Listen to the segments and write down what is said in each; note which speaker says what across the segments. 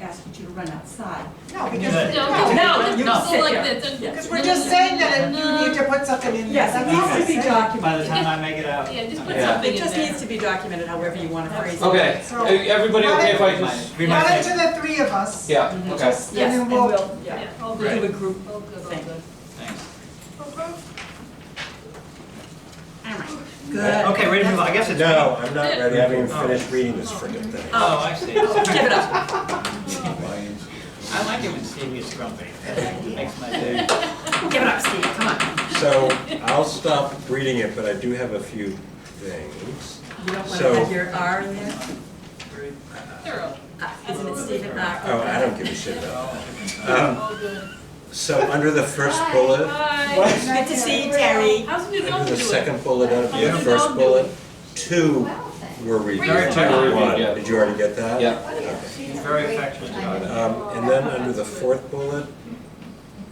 Speaker 1: asking you to run outside.
Speaker 2: No,
Speaker 3: Good.
Speaker 2: because,
Speaker 4: No,
Speaker 2: no,
Speaker 4: no,
Speaker 1: you
Speaker 4: no,
Speaker 1: can sit
Speaker 4: so like
Speaker 1: here.
Speaker 4: this. and-
Speaker 1: Yeah.
Speaker 2: because we're just saying that
Speaker 4: No.
Speaker 2: you need to put something in there.
Speaker 1: Yes, it
Speaker 2: That's all
Speaker 1: needs to be
Speaker 2: I'm saying.
Speaker 3: By the
Speaker 1: documented.
Speaker 3: time I make it out.
Speaker 4: Yeah, just put
Speaker 5: Yeah.
Speaker 4: something
Speaker 1: It
Speaker 4: in
Speaker 1: just needs
Speaker 4: there.
Speaker 1: to be documented however you want to phrase it.
Speaker 5: Okay,
Speaker 2: So-
Speaker 5: everybody okay if I just?
Speaker 3: We
Speaker 2: Run
Speaker 3: might
Speaker 2: it to
Speaker 3: take,
Speaker 2: the three of us.
Speaker 5: Yeah, okay,
Speaker 1: Mm-hmm. Yes, and we'll, yeah,
Speaker 4: Yeah, all
Speaker 1: we'll
Speaker 4: good,
Speaker 1: do a group.
Speaker 4: all good, all
Speaker 1: Thank
Speaker 4: good. Oh,
Speaker 3: thanks.
Speaker 1: All right, good.
Speaker 3: Okay, ready to move on, I guess it's.
Speaker 6: No, Oh, I'm not
Speaker 4: Yeah.
Speaker 6: ready, I haven't even finished reading this frickin' thing.
Speaker 3: Oh, I see.
Speaker 1: Give it up.
Speaker 3: I like it when Stevie is grumpy. Makes my day.
Speaker 1: Give it up, Steve, come on.
Speaker 6: So I'll stop reading it, but I do have a few things.
Speaker 1: You don't want
Speaker 6: So-
Speaker 1: to have your R in there?
Speaker 4: Thorough,
Speaker 1: Uh, Isn't it Stephen R?
Speaker 6: Oh, I don't give a shit about that. Um,
Speaker 4: all good.
Speaker 6: So under the first
Speaker 4: Hi,
Speaker 1: Uh,
Speaker 6: bullet,
Speaker 4: hi.
Speaker 1: Good to see you, Terry.
Speaker 4: How's the dog
Speaker 6: under
Speaker 4: doing?
Speaker 6: the second bullet, under
Speaker 4: Yeah.
Speaker 6: the first bullet, two were reviewed,
Speaker 3: Two were
Speaker 6: not one.
Speaker 5: reviewed, yeah.
Speaker 6: Did you already get that?
Speaker 5: yeah.
Speaker 3: He's very affectionate about it.
Speaker 6: Um, And then under the fourth bullet,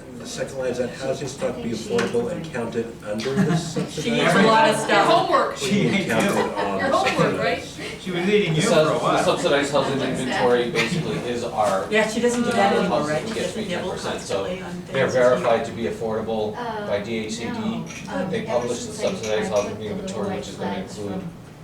Speaker 6: under the second line is that housing stock be affordable and counted under the
Speaker 1: She
Speaker 6: subsidized.
Speaker 1: needs a lot of
Speaker 4: Your
Speaker 1: stuff.
Speaker 4: homework,
Speaker 6: We need counted on
Speaker 4: your homework, right?
Speaker 6: subsidized.
Speaker 3: She was leading
Speaker 5: The
Speaker 3: you for a
Speaker 5: sub- the
Speaker 3: while.
Speaker 5: subsidized housing inventory basically is our,
Speaker 1: Yeah, she doesn't do that
Speaker 4: Uh,
Speaker 1: anymore, right? She
Speaker 5: gets me
Speaker 1: doesn't nibble
Speaker 5: 10%, so
Speaker 1: constantly on things.
Speaker 5: they're verified to be affordable by
Speaker 7: by
Speaker 5: DHCD.
Speaker 7: DHCD,
Speaker 5: They publish the subsidized housing inventory, which is gonna include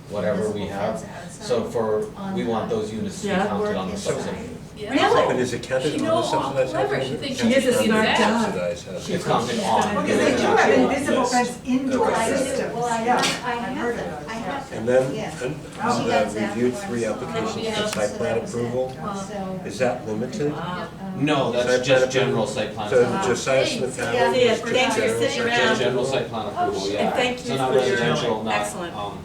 Speaker 5: whatever we have. So for, we want those units to be
Speaker 1: Yeah.
Speaker 5: counted on the subsidy.
Speaker 4: Yeah.
Speaker 6: But is it counted
Speaker 4: She
Speaker 6: on
Speaker 4: know
Speaker 6: the subsidized
Speaker 4: how clever
Speaker 6: housing?
Speaker 4: she thinks
Speaker 6: Counted
Speaker 1: she is,
Speaker 6: under
Speaker 1: isn't
Speaker 6: the
Speaker 1: it?
Speaker 6: subsidized housing.
Speaker 5: It's counted
Speaker 2: Because
Speaker 5: on.
Speaker 2: they do have
Speaker 5: Yes.
Speaker 2: invisible fence indoor
Speaker 6: Okay.
Speaker 2: systems,
Speaker 7: Well, I
Speaker 2: yeah.
Speaker 7: have, I
Speaker 2: I've heard
Speaker 7: have
Speaker 2: of
Speaker 7: them,
Speaker 2: those,
Speaker 7: I
Speaker 2: yeah.
Speaker 7: have them.
Speaker 6: And then,
Speaker 7: Yeah.
Speaker 6: and
Speaker 2: Oh,
Speaker 7: She
Speaker 6: uh,
Speaker 7: does that
Speaker 6: review
Speaker 7: for us.
Speaker 6: three applications
Speaker 4: Yeah.
Speaker 6: for site plan approval,
Speaker 7: So.
Speaker 6: is that limited?
Speaker 1: Wow.
Speaker 7: um,
Speaker 5: No, that's just general site plan.
Speaker 6: So
Speaker 5: approval.
Speaker 6: Josiah Smith
Speaker 7: Yeah.
Speaker 6: Hamlin
Speaker 1: Yeah,
Speaker 6: is just
Speaker 1: thanks for
Speaker 6: general
Speaker 1: sitting
Speaker 6: site
Speaker 1: around.
Speaker 6: plan
Speaker 5: Just general
Speaker 6: approval.
Speaker 5: site plan approval, yeah.
Speaker 1: And Oh, thank
Speaker 5: So
Speaker 1: you
Speaker 5: not
Speaker 1: for your
Speaker 5: residential, not,
Speaker 1: excellent
Speaker 5: um,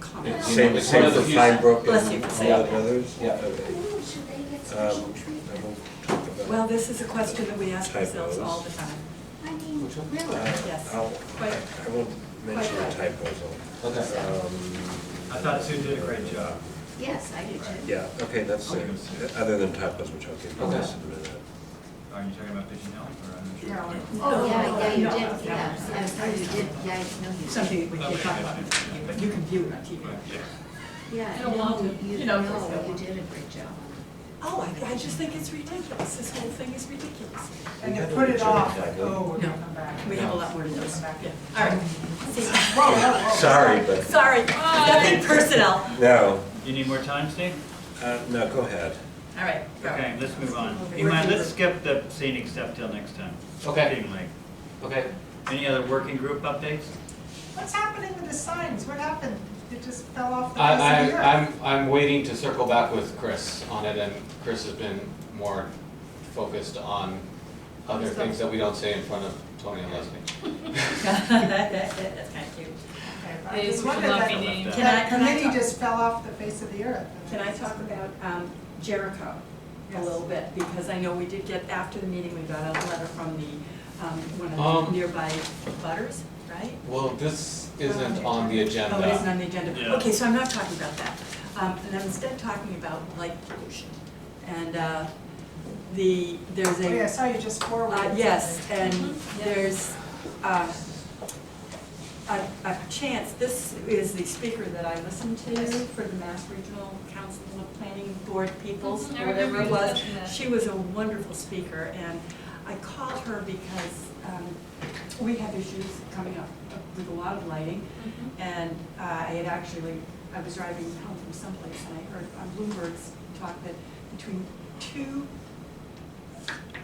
Speaker 1: Comment.
Speaker 5: It's-
Speaker 6: Same, same for Pine Brook and
Speaker 1: Bless you.
Speaker 6: all the others?
Speaker 5: Yeah.
Speaker 6: Okay.
Speaker 7: Should they get special
Speaker 6: Um,
Speaker 7: treatment?
Speaker 6: I won't talk about.
Speaker 1: Well, this is a question that we ask ourselves all the time.
Speaker 7: I mean,
Speaker 5: Which one?
Speaker 7: really?
Speaker 6: Uh,
Speaker 1: yes.
Speaker 6: I'll,
Speaker 1: Quite-
Speaker 6: I won't mention the typos. I'll-
Speaker 5: okay.
Speaker 3: I
Speaker 6: um,
Speaker 3: thought Sue did a great job.
Speaker 7: Yes, I do too.
Speaker 6: Yeah, okay, that's,
Speaker 3: I'll
Speaker 6: uh,
Speaker 3: give it to
Speaker 6: other than typos, which I'll get to
Speaker 5: Okay.
Speaker 6: this in a minute.
Speaker 3: Are you talking about Pigeon Hill or? I'm not sure.
Speaker 1: No.
Speaker 7: Oh, yeah, yeah, you
Speaker 1: No,
Speaker 7: did,
Speaker 1: no,
Speaker 7: yeah,
Speaker 1: no.
Speaker 7: I'm sorry, you did, yeah, no, you did.
Speaker 1: Something that we can't talk about, but you can view it on TV.
Speaker 3: Yeah.
Speaker 7: Yeah,
Speaker 4: I don't want
Speaker 7: no,
Speaker 4: to,
Speaker 7: you,
Speaker 4: you
Speaker 7: no,
Speaker 4: know,
Speaker 7: you did a great job.
Speaker 1: Oh, I, I just think it's ridiculous, this whole thing is ridiculous.
Speaker 2: And they put it off, like, oh, we're
Speaker 1: No.
Speaker 2: gonna come back.
Speaker 1: We have a lot more to do. Yeah. All right,
Speaker 2: Whoa, whoa, whoa.
Speaker 6: Sorry, but,
Speaker 1: sorry,
Speaker 4: Bye.
Speaker 1: nothing personnel.
Speaker 6: no,
Speaker 3: You need more time, Steve?
Speaker 6: uh, no, go ahead.
Speaker 1: All right, go.
Speaker 3: Okay, let's move on.
Speaker 1: We're
Speaker 3: You mind, let's
Speaker 1: deeper.
Speaker 3: skip the scenic stuff till next time. It's
Speaker 5: Okay.
Speaker 3: getting late.
Speaker 5: Okay.
Speaker 3: Any other working group updates?
Speaker 2: What's happening with the signs? What happened? It just fell off the
Speaker 5: I,
Speaker 2: face of the
Speaker 5: I,
Speaker 2: earth.
Speaker 5: I'm, I'm waiting to circle back with Chris on it, and Chris has been more focused on other things that we don't say in front of Tony and Leslie.
Speaker 1: That, that, that, that's kind of cute.
Speaker 2: Okay, but I
Speaker 4: They
Speaker 2: just
Speaker 4: should
Speaker 2: wondered
Speaker 4: not
Speaker 2: that-
Speaker 4: be named.
Speaker 1: Can I-
Speaker 2: That
Speaker 1: can I
Speaker 2: committee
Speaker 1: talk-
Speaker 2: just fell off the face of the earth.
Speaker 1: Can I talk about um, Jericho a
Speaker 2: Yes.
Speaker 1: little bit? Because I know we did get, after the meeting, we got a letter from the, um, one of
Speaker 5: Um,
Speaker 1: the nearby butters, right?
Speaker 5: Well, this isn't on the agenda.
Speaker 1: Oh, it
Speaker 4: uh,
Speaker 1: isn't on the agenda.
Speaker 3: Yeah.
Speaker 1: Okay, so I'm not talking about that. Um, And I'm instead talking about light pollution. And uh, the, there's
Speaker 2: Oh,
Speaker 1: a.
Speaker 2: yeah, I saw you just forwarded.
Speaker 1: Uh,
Speaker 2: something.
Speaker 1: yes, and
Speaker 4: Mhm.
Speaker 1: there's, uh, a, a chance, this is the speaker that I listened to for the Mass Regional Council of Planning Board Peoples,
Speaker 4: Mhm, I
Speaker 1: or whatever
Speaker 4: remember
Speaker 1: it
Speaker 4: you
Speaker 1: was.
Speaker 4: touching that.
Speaker 1: She was a wonderful speaker, and I called her because, um, we have issues coming up with a lot of lighting.
Speaker 4: Mm-hmm.
Speaker 1: And uh, I had actually, I was driving home from someplace and I heard on Bloomberg's talk that between two,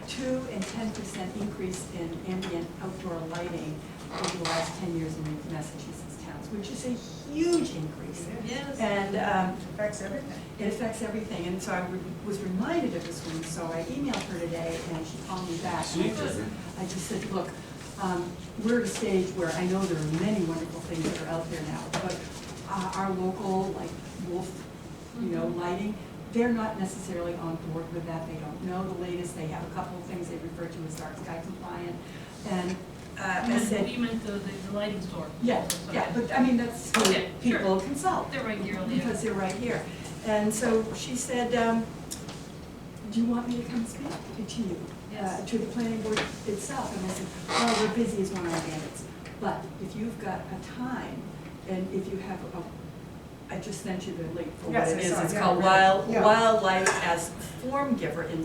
Speaker 1: two and ten percent increase in ambient outdoor lighting over the last ten years in Massachusetts towns, which is a huge increase.
Speaker 4: Yes.
Speaker 1: And um,
Speaker 2: Affects everything.
Speaker 1: it affects everything, and so I re- was reminded of this one, so I emailed her today, and she called me back. And I just- I just said, look, um, we're at a stage where I know there are many wonderful things that are out there now, but uh, our local, like Wolf, you know, lighting, they're not necessarily on board with that, they don't know the latest, they have a couple of things they refer to as dark sky compliant, and uh, I
Speaker 4: You meant-
Speaker 1: said,
Speaker 4: You meant the, the the lighting store.
Speaker 1: yeah, yeah, but I mean, that's who
Speaker 4: Oh, Yeah, sure.
Speaker 1: people consult
Speaker 4: They're right here,
Speaker 1: because they're right here. And so she said, um, do you want me to come speak to you?
Speaker 4: Yes.
Speaker 1: uh, To the planning board itself, and I said, well, we're busy as one of our bandits. But if you've got a time, and if you have a, I just sent you the link for what
Speaker 2: Yes,
Speaker 1: it
Speaker 2: I
Speaker 1: is,
Speaker 2: saw it,
Speaker 1: it's
Speaker 2: yeah,
Speaker 1: called
Speaker 2: right,
Speaker 1: Wild,
Speaker 2: yeah.
Speaker 1: Wildlife as Form Giver in